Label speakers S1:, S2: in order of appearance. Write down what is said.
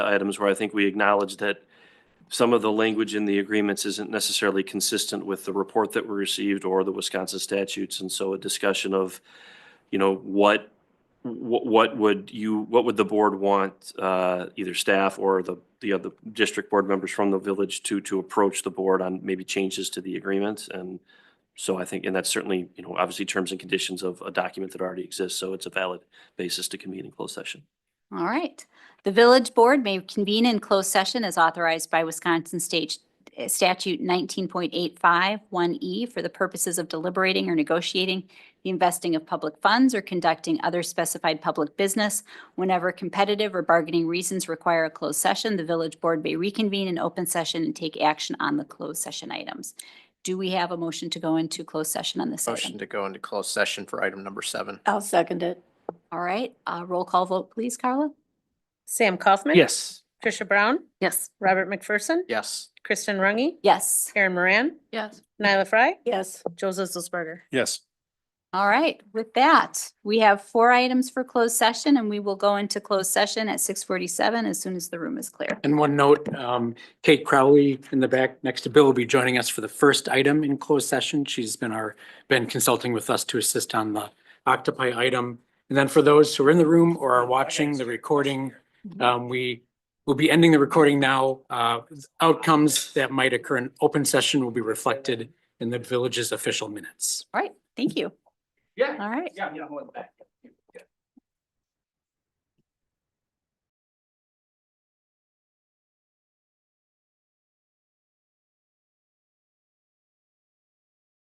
S1: items where I think we acknowledge that some of the language in the agreements isn't necessarily consistent with the report that we received or the Wisconsin statutes. And so a discussion of, you know, what, what, what would you, what would the board want, uh, either staff or the, the other district board members from the village to, to approach the board on maybe changes to the agreement? And so I think, and that's certainly, you know, obviously terms and conditions of a document that already exists. So it's a valid basis to convene in closed session.
S2: All right. The village board may convene in closed session as authorized by Wisconsin State eh, Statute 19.851 E for the purposes of deliberating or negotiating the investing of public funds or conducting other specified public business. Whenever competitive or bargaining reasons require a closed session, the village board may reconvene in open session and take action on the closed session items. Do we have a motion to go into closed session on this
S3: Motion
S2: item?
S3: to go into closed session for item number seven.
S4: I'll second it.
S2: All right, uh, roll call vote, please, Carla?
S5: Sam Kaufman.
S1: Yes.
S5: Tricia Brown,
S2: Yes.
S5: Robert McPherson,
S3: Yes.
S5: Kristen Rungy,
S2: Yes.
S5: Karen Moran,
S4: Yes.
S5: Nyla Fry,
S4: Yes.
S5: Joseph Zelsberger.
S6: Yes.
S2: All right, with that, we have four items for closed session and we will go into closed session at six forty-seven as soon as the room is clear.
S6: And one note, um, Kate Crowley in the back next to Bill will be joining us for the first item in closed session. She's been our, been consulting with us to assist on the octopi item. And then for those who are in the room or are watching the recording, um, we will be ending the recording now. Uh, outcomes that might occur in open session will be reflected in the village's official minutes.
S2: All right, thank you.
S7: Yeah.
S2: All right.
S7: Yeah, yeah, I'm going back.